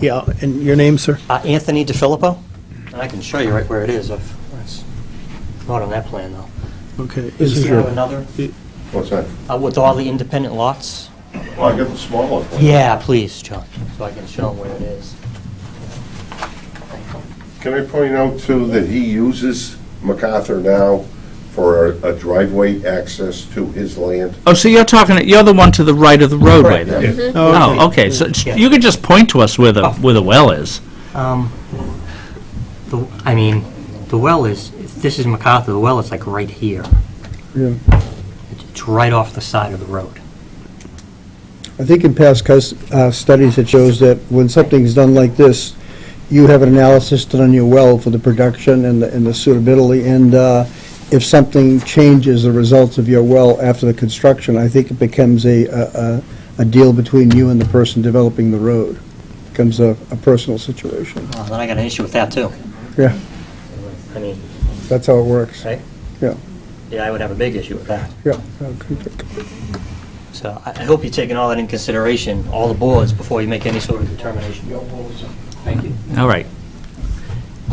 Yeah, and your name, sir? Uh, Anthony DeFilippo, and I can show you right where it is, if, it's not on that plan, though. Okay. Do Is you have another, What's that? uh, with all the independent lots? Well, I got the smaller one. Yeah, please, John, so I can show them where it is. Can I point out too that he uses MacArthur now for a a driveway access to his land? Oh, so you're talking, you're the one to the right of the roadway then? Oh, okay, Oh. so Yeah. you could just point to us where the, where the well is. Um, the- I mean, the well is, this is MacArthur, the well is like right here. Yeah. It's- It's right off the side of the road. I think in past cus- uh, studies, it shows that when something's done like this, you have an analysis done on your well for the production and the and the suitability, and uh, if something changes the results of your well after the construction, I think it becomes a- a, a- a deal between you and the person developing the road. Becomes a a personal situation. Uh, Then I got an issue with that, too. Yeah, I mean, that's how it works. right? Yeah. Yeah, I would have a big issue with that. Yeah. So I I hope you're taking all that in consideration, all the boards, before you make any sort of determination. Thank you. All right,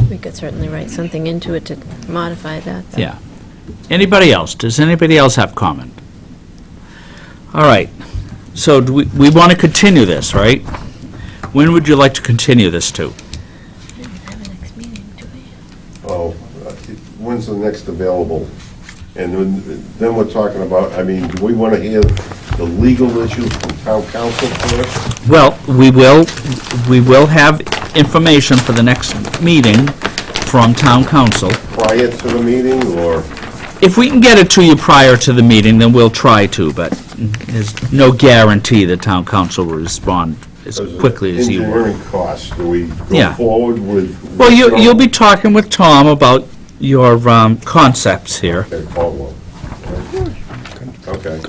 We could certainly write something into it to modify that. though. yeah. Anybody else? Does anybody else have comment? All right, so do we, we want to continue this, right? When would you like to continue this to? We don't have a next meeting, do we? Oh, uh, when's the next available? And then- then we're talking about, I mean, do we want to hear the legal issues from town council first? Well, we will, we will have information for the next meeting from town council. prior to the meeting, or? If we can get it to you prior to the meeting, then we'll try to, but there's no guarantee the town council will respond as quickly as you want. Engineering costs, do we go Yeah. forward with? Well, you, you'll be talking with Tom about your um, concepts here, Okay, Caldwell. Okay.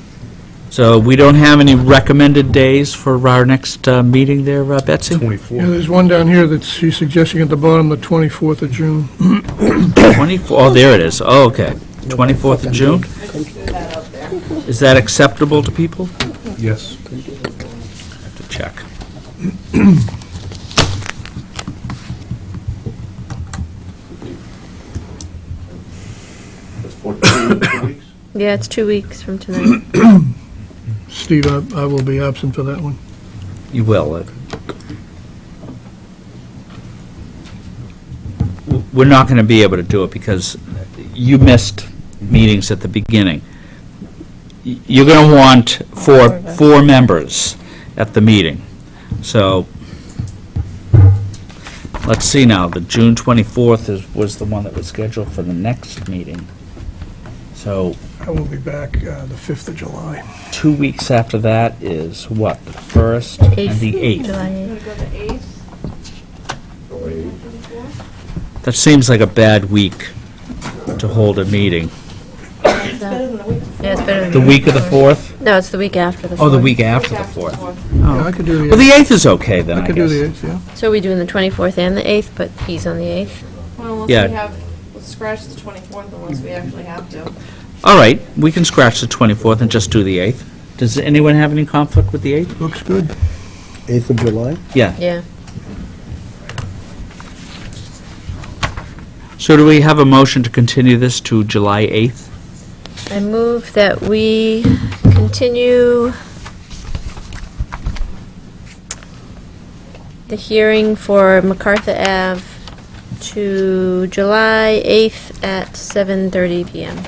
so we don't have any recommended days for our next uh, meeting there, uh, Betsy? Yeah, there's one down here that she's suggesting at the bottom, the 24th of June. 24, oh, there it is, oh, okay, 24th of June? Is that acceptable to people? Yes. Have to check. That's 14 weeks? Yeah, it's two weeks from tonight. Steve, I I will be absent for that one. You will. uh, w- We're not going to be able to do it because you missed meetings at the beginning. Y- You're going to want four, four members at the meeting. So, let's see now, the June 24th is, was the one that was scheduled for the next meeting. So, I will be back uh, the 5th of July. two weeks after that is what, the 1st and the 8th? July eighth. That seems like a bad week to hold a meeting. Yeah, it's better than. The week of the 4th? No, it's the week after the. Oh, the fourth. week after the 4th. Yeah, I could do Well, the, the 8th is okay then, Oh. I I could do the guess. 8th, yeah. So we're doing the 24th and the 8th, but he's on the 8th. Well, unless Yeah. we have, let's scratch the 24th unless we actually have to. All right, we can scratch the 24th and just do the 8th. Does anyone have any conflict with the 8th? Looks good. 8th of July? Yeah. Yeah. So do we have a motion to continue this to July 8th? I move that we continue the hearing for MacArthur Ave to July 8th at 7:30 PM.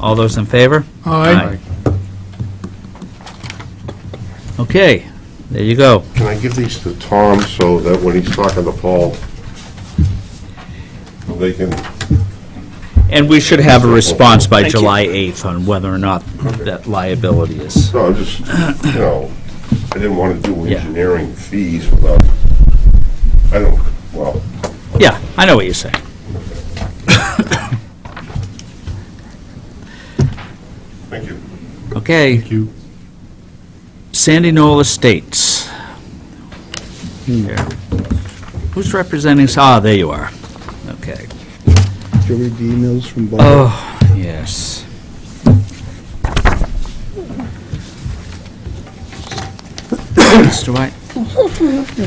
All those in favor? Aye. Okay, there you go. Can I give these to Tom so that when he's talking to Paul, they can, And we should have a response by July 8th on whether or not that liability is. no, I'm just, you know, I didn't want to do Yeah. engineering fees without, I don't, well, Yeah, I know what you're saying. thank you. Okay. you. Sandy Knoll Estates. Here. Who's representing, ah, there you are. Okay. Did you read the emails from Bob? Oh, yes. Mr. White?